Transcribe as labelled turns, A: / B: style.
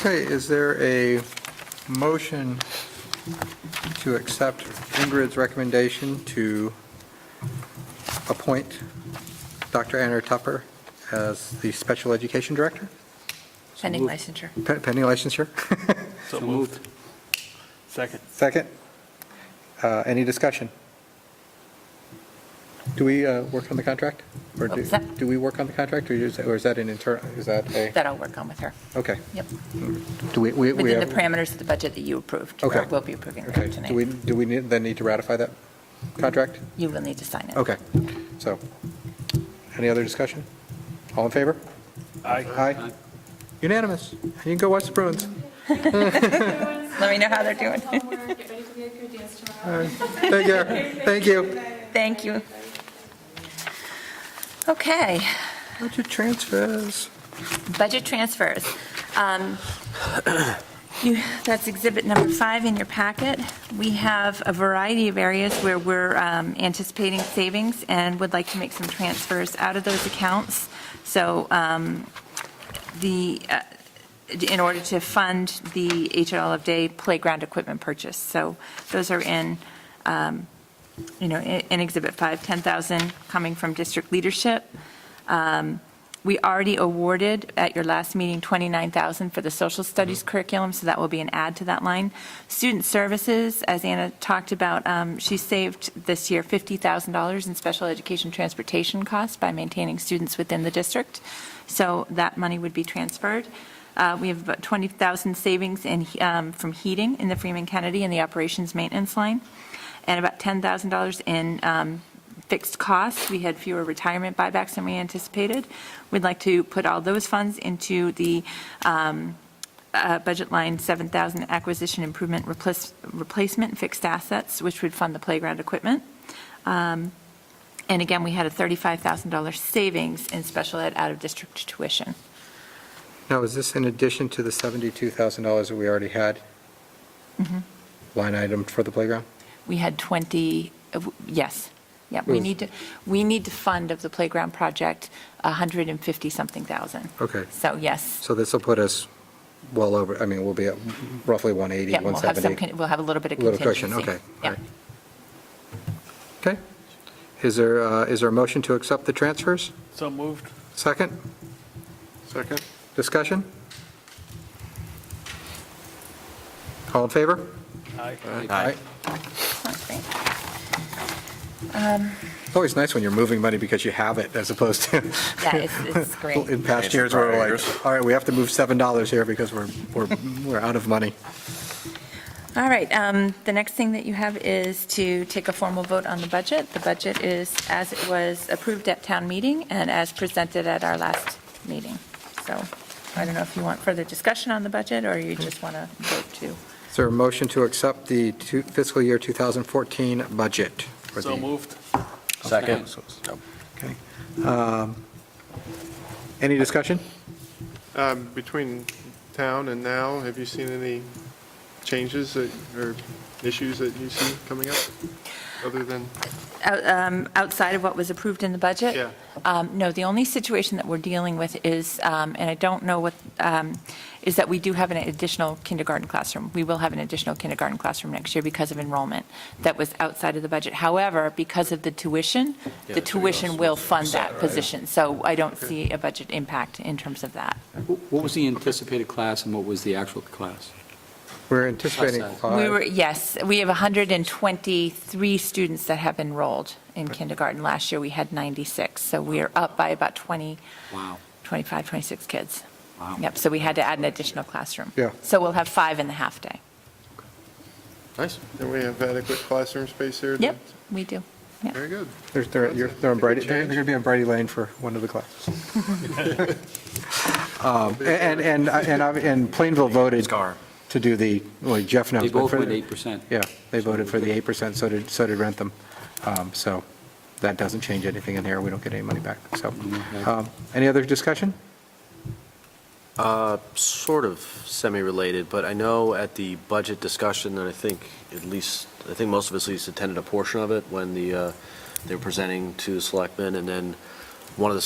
A: Okay, is there a motion to accept Ingrid's recommendation to appoint Dr. Anna Tupper as the special education director,
B: Pending licensure.
A: pe- pending licensure?
C: So moved. Second.
A: Second? Uh, Any discussion? Do we uh, work on the contract? Or do
B: What's that?
A: do we work on the contract, or is or is that an internal, is that a,
B: That I'll work on with her.
A: okay.
B: Yep.
A: Do we, we, we
B: Within the
A: have,
B: parameters of the budget that you approved. or
A: Okay.
B: We'll be approving
A: okay,
B: that
A: do we,
B: tonight.
A: do we need- then need to ratify that contract?
B: You will need to sign it.
A: Okay, so, any other discussion? All in favor? Aye. Unanimous. You can go watch the Bruins.
B: Let me know how they're doing.
D: Homework, get ready for the Edgar dance tomorrow.
A: Thank you, thank you.
B: Thank you. Okay,
A: Budget transfers.
B: budget transfers. Um, you- That's exhibit number five in your packet. We have a variety of areas where we're um, anticipating savings and would like to make some transfers out of those accounts. So um, the, uh, in order to fund the HL of Day playground equipment purchase. So those are in um, you know, in in Exhibit 5, 10,000 coming from district leadership. Um, We already awarded at your last meeting 29,000 for the social studies curriculum, so that will be an add to that line. Student services, as Anna talked about, um, she saved this year $50,000 in special education transportation costs by maintaining students within the district. So that money would be transferred. Uh, We have about 20,000 savings in, um, from heating in the Freeman Kennedy and the operations maintenance line and about $10,000 in um, fixed costs. We had fewer retirement buybacks than we anticipated. We'd like to put all those funds into the um, uh, budget line 7,000 acquisition improvement replace- replacement fixed assets, which would fund the playground equipment. Um, And again, we had a $35,000 savings in special ed out-of-district tuition.
A: Now, is this in addition to the $72,000 that we already had?
B: Mm-hmm.
A: Line item for the playground?
B: We had 20, uh, w- yes, yeah, we
A: Was-
B: need to, we need to fund of the playground project 150-something thousand.
A: Okay,
B: So yes,
A: so this will put us well over, I mean, we'll be at roughly 180,
B: yeah, we'll have some,
A: 170.
B: con- we'll have a little bit of
A: Little
B: contingency.
A: cushion, okay, all
B: Yeah.
A: right. Okay. Is there, uh, is there a motion to accept the transfers?
C: So moved.
A: Second?
C: Second.
A: Discussion? All in favor?
C: Aye.
A: Aye.
B: That's great.
A: It's always nice when you're moving money because you have it as opposed to.
B: Yeah, it's, it's great.
A: In past
E: It's
A: years, we we're
E: prior years.
A: like, all right, we have to move $7 here because we're, we're, we're out of money.
B: All right, um, the next thing that you have is to take a formal vote on the budget. The budget is as it was approved at town meeting and as presented at our last meeting. So I don't know if you want further discussion on the budget or you just want to vote to.
A: Is there a motion to accept the two- fiscal year 2014 budget? for
C: So
A: the-
C: moved.
E: Second.
A: Okay. Um, Any discussion?
F: Um, Between town and now, have you seen any changes that- or issues that you see coming up, other than,
B: Out- um, Outside of what was approved in the budget?
F: Yeah.
B: Um, No, the only situation that we're dealing with is, um, and I don't know what, um, is that we do have an additional kindergarten classroom. We will have an additional kindergarten classroom next year because of enrollment that was outside of the budget. However, because of the tuition, the tuition will fund that position. So I don't see a budget impact in terms of that.
G: What was the anticipated class and what was the actual class?
A: We're anticipating
G: Outside.
B: We were,
A: five.
B: yes, we have 123 students that have enrolled in kindergarten. Last year, we had 96, so we are up by about 20,
G: Wow.
B: 25, 26 kids.
G: Wow.
B: Yep, so we had to add an additional classroom.
A: Yeah.
B: So we'll have five in the half-day.
E: Nice.
F: and we have adequate classroom space here? to-
B: Yep, we do. Yep.
F: Very good.
A: There's- They're you're- they're on Brady, they're going to be on Brady Lane for one of the classes. Um, And, and, and I- and Plainville voted to do the, well, Jeff knows.
G: They
A: but
G: both
A: for-
G: went 8%.
A: Yeah, they voted for the 8%, so did, so did Rentham. Um, So that doesn't change anything in here, we don't get any money back, so.
G: Mm-hmm.
A: um, Any other discussion?
E: Uh, Sort of semi-related, but I know at the budget discussion, and I think at least, I think most of us at least attended a portion of it when the, uh, they were presenting to the selectmen, and then one of the